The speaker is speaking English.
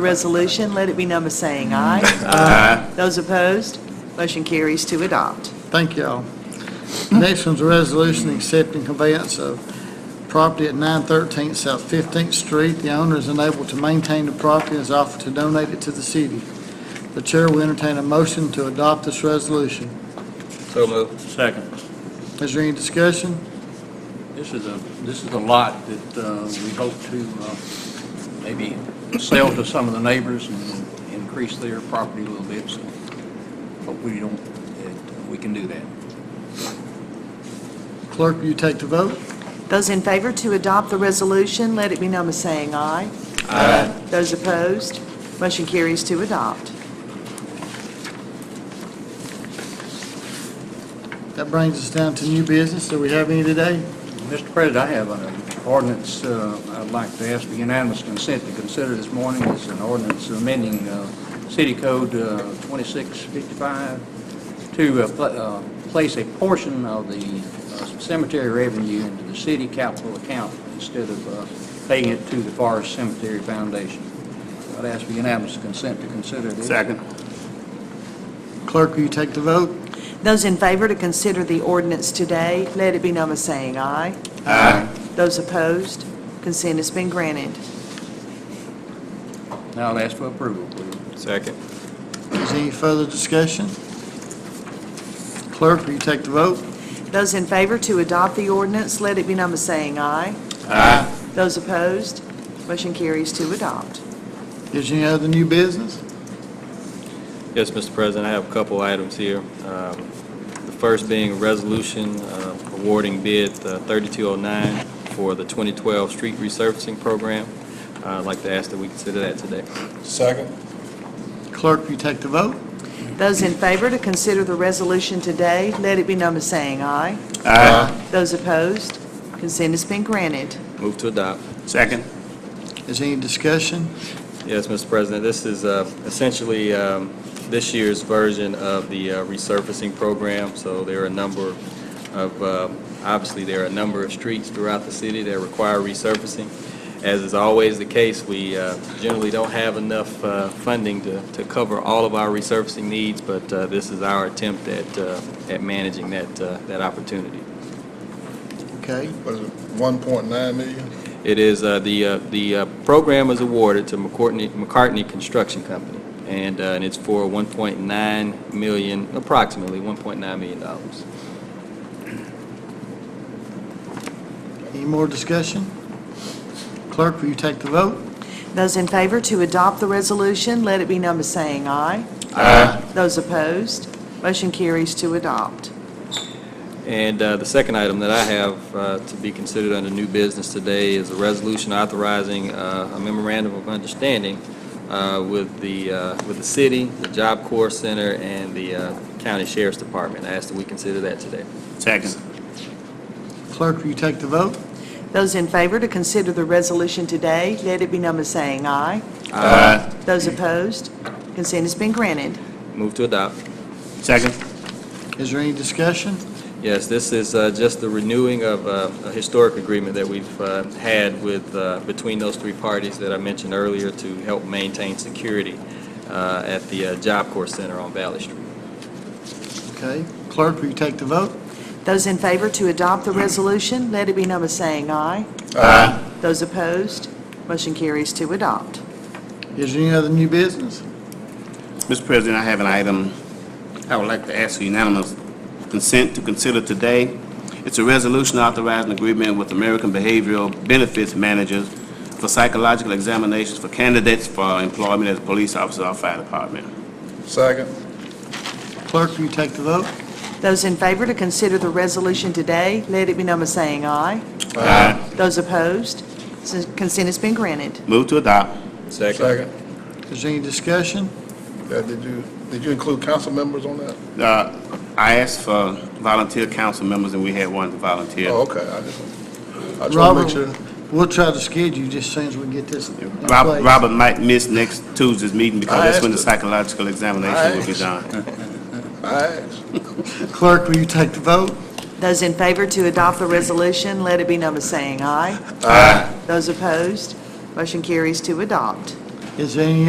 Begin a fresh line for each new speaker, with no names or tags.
The resolution, let it be number saying aye. Aye. Those opposed, motion carries to adopt.
Thank y'all. Next one's a resolution accepting conveyance of property at 913 South 15th Street. The owner is unable to maintain the property and has offered to donate it to the city. The chair will entertain a motion to adopt this resolution.
So moved.
Second.
Is there any discussion?
This is a, this is a lot that uh, we hope to uh, maybe sell to some of the neighbors and increase their property a little bit, so hope we don't, that we can do that.
Clerk, will you take the vote?
Those in favor to adopt the resolution, let it be number saying aye. Aye. Those opposed, motion carries to adopt.
That brings us down to new business. Do we have any today?
Mr. President, I have an ordinance uh, I'd like to ask for unanimous consent to consider this morning. It's an ordinance amending uh, City Code uh, 2655 to uh, pla- uh, place a portion of the uh, cemetery revenue into the city capital account instead of uh, paying it to the Forest Cemetery Foundation. I'd ask for unanimous consent to consider this.
Clerk, will you take the vote?
Those in favor to consider the ordinance today, let it be number saying aye. Aye. Those opposed, consent has been granted.
Now I'll ask for approval, please.
Second.
Is there any further discussion? Clerk, will you take the vote?
Those in favor to adopt the ordinance, let it be number saying aye.
Aye.
Those opposed, motion carries to adopt.
Is there any other new business?
Yes, Mr. President, I have a couple items here. Um, The first being a resolution uh, awarding bid uh, 3209 for the 2012 street resurfacing program. Uh, I'd like to ask that we consider that today.
Second.
Clerk, will you take the vote?
Those in favor to consider the resolution today, let it be number saying aye.
Aye.
Those opposed, consent has been granted.
Move to adopt.
Second.
Is there any discussion?
Yes, Mr. President, this is uh, essentially um, this year's version of the uh, resurfacing program. So there are a number of, uh, obviously, there are a number of streets throughout the city that require resurfacing. As is always the case, we uh, generally don't have enough uh, funding to to cover all of our resurfacing needs, but uh, this is our attempt at uh, at managing that uh, that opportunity.
Okay.
What is it, 1.9 million?
It is, uh, the, uh, the uh, program was awarded to McCourtney- McCartney Construction Company, and uh, and it's for 1.9 million, approximately 1.9 million dollars.
Any more discussion? Clerk, will you take the vote?
Those in favor to adopt the resolution, let it be number saying aye. Aye. Those opposed, motion carries to adopt.
And uh, the second item that I have uh, to be considered under new business today is a resolution authorizing uh, a memorandum of understanding uh, with the, uh, with the city, the Job Corps Center, and the uh, County Sheriff's Department. I ask that we consider that today.
Second.
Clerk, will you take the vote?
Those in favor to consider the resolution today, let it be number saying aye.
Aye.
Those opposed, consent has been granted.
Move to adopt.
Second.
Is there any discussion?
Yes, this is uh, just the renewing of uh, a historic agreement that we've uh, had with, uh, between those three parties that I mentioned earlier to help maintain security uh, at the uh, Job Corps Center on Valley Street.
Okay. Clerk, will you take the vote?
Those in favor to adopt the resolution, let it be number saying aye.
Uh,
Aye.
Those opposed, motion carries to adopt.
Is there any other new business?
Mr. President, I have an item I would like to ask for unanimous consent to consider today. It's a resolution authorizing agreement with American Behavioral Benefits Managers for psychological examinations for candidates for employment as police officer or fire department.
Second.
Clerk, will you take the vote?
Those in favor to consider the resolution today, let it be number saying aye.
Uh-huh.
Aye.
Those opposed, since consent has been granted.
Move to adopt.
Second.
Is there any discussion?
Yeah, did you, did you include council members on that?
Uh, I asked for volunteer council members, and we had one volunteer.
Oh, okay, I just, I just want to
Robert,
make sure.
We'll try to schedule you just as soon as we get this in
Rob-
place.
Robert might miss next Tuesday's meeting because
I
that's when the
asked
psychological examination will be
asked.
done.
I asked.
Clerk, will you take the vote?
Those in favor to adopt the resolution, let it be number saying aye. Aye. Those opposed, motion carries to adopt.
Is there any